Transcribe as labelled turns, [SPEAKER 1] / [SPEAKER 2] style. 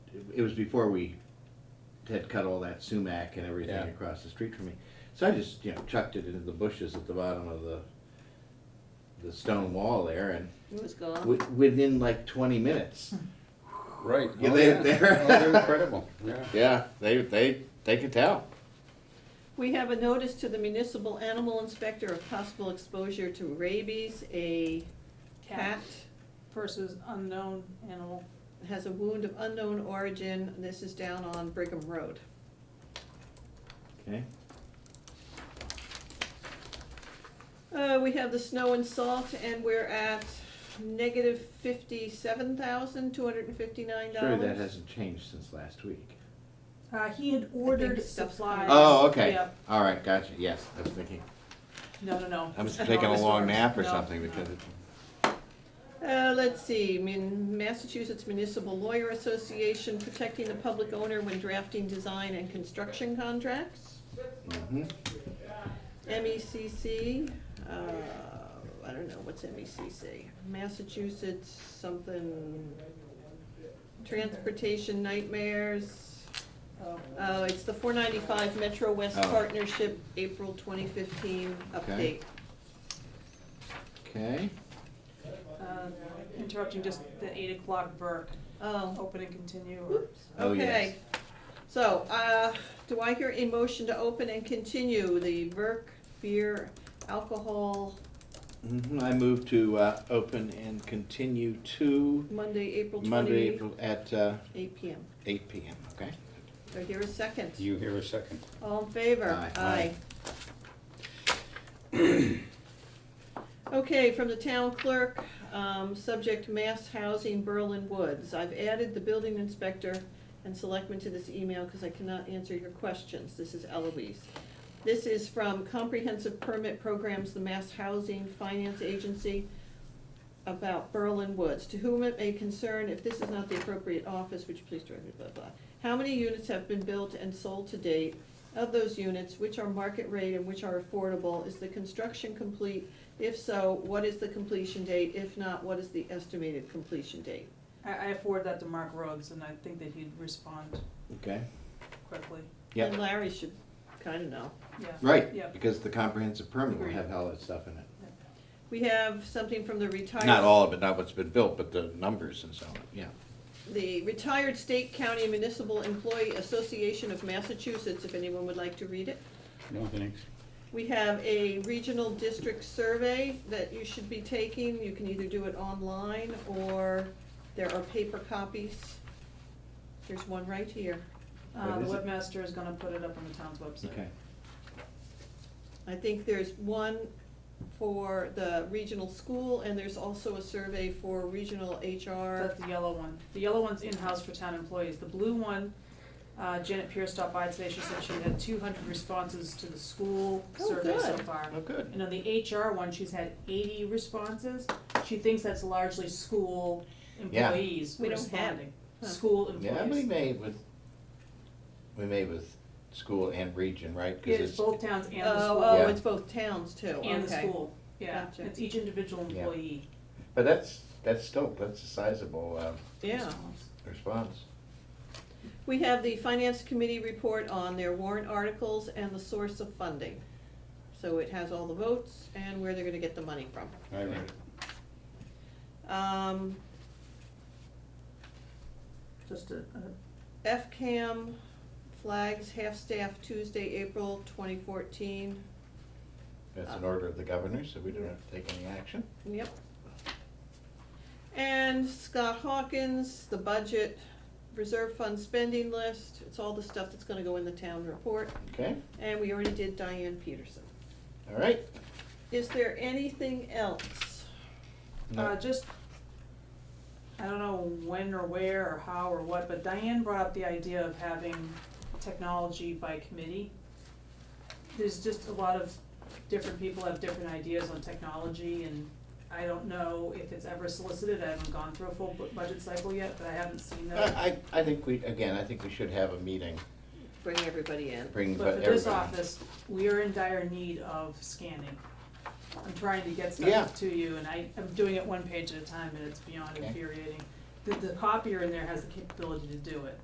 [SPEAKER 1] it was before we had cut all that sumac and everything
[SPEAKER 2] Yeah.
[SPEAKER 1] across the street from me. So I just, you know, chucked it into the bushes at the bottom of the, the stone wall there and
[SPEAKER 3] It was gone.
[SPEAKER 1] wi- within like twenty
[SPEAKER 3] Hmm.
[SPEAKER 1] minutes.
[SPEAKER 2] Right.
[SPEAKER 1] Yeah,
[SPEAKER 2] Oh,
[SPEAKER 1] they-
[SPEAKER 2] yeah.
[SPEAKER 1] they're-
[SPEAKER 2] Oh, they're incredible, yeah.
[SPEAKER 1] Yeah, they, they, they could tell.
[SPEAKER 3] We have a notice to the municipal animal inspector of possible exposure to rabies. A cat
[SPEAKER 4] versus unknown animal.
[SPEAKER 3] has a wound of unknown origin. This is down on Brigham Road.
[SPEAKER 1] Okay.
[SPEAKER 3] Uh, we have the snow and salt, and we're at negative fifty-seven thousand, two hundred and fifty-nine
[SPEAKER 1] Surely
[SPEAKER 3] dollars.
[SPEAKER 1] that hasn't changed since last week.
[SPEAKER 4] Uh, he had ordered
[SPEAKER 3] stuff's
[SPEAKER 4] supplies.
[SPEAKER 3] coming.
[SPEAKER 1] Oh, okay,
[SPEAKER 4] Yep.
[SPEAKER 1] all right, gotcha, yes, I was thinking,
[SPEAKER 4] No, no, no.
[SPEAKER 1] I was
[SPEAKER 4] No,
[SPEAKER 1] taking a
[SPEAKER 4] it's
[SPEAKER 1] long
[SPEAKER 4] ours.
[SPEAKER 1] nap or
[SPEAKER 4] No,
[SPEAKER 1] something
[SPEAKER 4] no.
[SPEAKER 1] because it.
[SPEAKER 3] Uh, let's see, Min- Massachusetts Municipal Lawyer Association, protecting the public owner when drafting design and construction contracts.
[SPEAKER 1] mhm.
[SPEAKER 3] MECC, E uh, I don't know, what's MECC? Massachusetts something, Transportation Nightmares. Oh, it's the four ninety-five Metro West
[SPEAKER 1] Oh.
[SPEAKER 3] Partnership, April twenty fifteen
[SPEAKER 1] Okay.
[SPEAKER 3] update.
[SPEAKER 1] Okay,
[SPEAKER 4] Uh, Interrupting just the eight o'clock Burke,
[SPEAKER 3] Oh,
[SPEAKER 4] open and continue or?
[SPEAKER 3] oops,
[SPEAKER 1] Oh, yes.
[SPEAKER 3] okay. So, uh, do I hear a motion to open and continue the Burke Beer Alcohol
[SPEAKER 1] Mhm, I move to, uh, open and continue to
[SPEAKER 3] Monday, April
[SPEAKER 1] Monday, April,
[SPEAKER 3] twenty,
[SPEAKER 1] at, uh,
[SPEAKER 3] eight P M.
[SPEAKER 1] eight PM, okay?
[SPEAKER 3] Do I hear a second?
[SPEAKER 2] You hear a second.
[SPEAKER 3] All in favor?
[SPEAKER 1] Aye. Aye.
[SPEAKER 3] Okay, from the town clerk, um, subject mass housing Berlin Woods. I've added the building inspector and selectman to this email because I cannot answer your questions. This is Eloise. This is from Comprehensive Permit Programs, the Mass Housing Finance Agency, about Berlin Woods. To whom it may concern, if this is not the appropriate office, would you please direct me, blah, blah. How many units have been built and sold to date? Of those units, which are market rate and which are affordable? Is the construction complete? If so, what is the completion date? If not, what is the estimated completion date?
[SPEAKER 4] I, I forwarded that to Mark Rhodes and I think that he'd respond
[SPEAKER 1] Okay,
[SPEAKER 4] quickly,
[SPEAKER 1] Yep.
[SPEAKER 3] And Larry should kinda know.
[SPEAKER 4] yeah. Yeah.
[SPEAKER 1] right, because the comprehensive permit will
[SPEAKER 4] Agreed.
[SPEAKER 1] have all that stuff in it.
[SPEAKER 3] We have something from the retired.
[SPEAKER 1] Not all of it, not what's been built, but the numbers and so on, yeah.
[SPEAKER 3] The Retired State County Municipal Employee Association of Massachusetts, if anyone would like to read it.
[SPEAKER 2] No, thanks.
[SPEAKER 3] We have a regional district survey that you should be taking. You can either do it online or there are paper copies. There's one right here.
[SPEAKER 4] Uh,
[SPEAKER 1] What
[SPEAKER 4] the
[SPEAKER 1] is it?
[SPEAKER 4] webmaster is gonna put it up on the town's website.
[SPEAKER 1] Okay,
[SPEAKER 3] I think there's one for the regional school and there's also a survey for regional HR.
[SPEAKER 4] That's the yellow one. The yellow one's in-house for town employees. The blue one, uh, Janet Pierce stopped by today. She said she had two hundred responses to the school
[SPEAKER 3] Oh,
[SPEAKER 4] survey so
[SPEAKER 3] good.
[SPEAKER 4] far.
[SPEAKER 1] oh, good,
[SPEAKER 4] And on the HR one, she's had eighty responses. She thinks that's largely school
[SPEAKER 1] Yeah.
[SPEAKER 4] employees
[SPEAKER 3] We don't have-
[SPEAKER 4] responding.
[SPEAKER 3] huh.
[SPEAKER 4] School
[SPEAKER 1] yeah, we
[SPEAKER 4] employees.
[SPEAKER 1] made with, we made with school and region, right? 'Cause
[SPEAKER 4] It's both towns and the
[SPEAKER 3] Oh,
[SPEAKER 4] school.
[SPEAKER 3] oh,
[SPEAKER 1] Yeah.
[SPEAKER 3] it's both towns too, okay.
[SPEAKER 4] And the school, yeah.
[SPEAKER 3] Gotcha.
[SPEAKER 4] It's each individual
[SPEAKER 1] Yeah.
[SPEAKER 4] employee.
[SPEAKER 1] But that's, that's still, that's a sizable, um,
[SPEAKER 3] Yeah.
[SPEAKER 4] response.
[SPEAKER 1] response.
[SPEAKER 3] We have the finance committee report on their warrant articles and the source of funding. So it has all the votes and where they're gonna get the money from.
[SPEAKER 2] I read it.
[SPEAKER 3] Um,
[SPEAKER 4] Just a,
[SPEAKER 3] FCAM flags half-staff Tuesday, April twenty fourteen.
[SPEAKER 1] That's
[SPEAKER 4] Uh,
[SPEAKER 1] an order of the governor, so we don't have to take any action.
[SPEAKER 3] Yep. And Scott Hawkins, the budget, reserve fund spending list, it's all the stuff that's gonna go in the town report.
[SPEAKER 1] Okay,
[SPEAKER 3] And we already did Diane Peterson.
[SPEAKER 1] all right.
[SPEAKER 3] Is there anything else?
[SPEAKER 1] No.
[SPEAKER 4] Uh, just, I don't know when or where or how or what, but Diane brought up the idea of having technology by committee. There's just a lot of different people have different ideas on technology and I don't know if it's ever solicited, I haven't gone through a full bu- budget cycle yet, but I haven't seen that.
[SPEAKER 1] I, I I think we, again, I think we should have a meeting,
[SPEAKER 3] Bring everybody in.
[SPEAKER 1] bring
[SPEAKER 4] But
[SPEAKER 1] everybody.
[SPEAKER 4] for this office, we are in dire need of scanning. I'm trying to get
[SPEAKER 1] Yeah.
[SPEAKER 4] stuff to you, and I, I'm doing it one page at a time, and it's beyond
[SPEAKER 1] Okay.
[SPEAKER 4] infuriating. The, the copier in there has the capability to do it,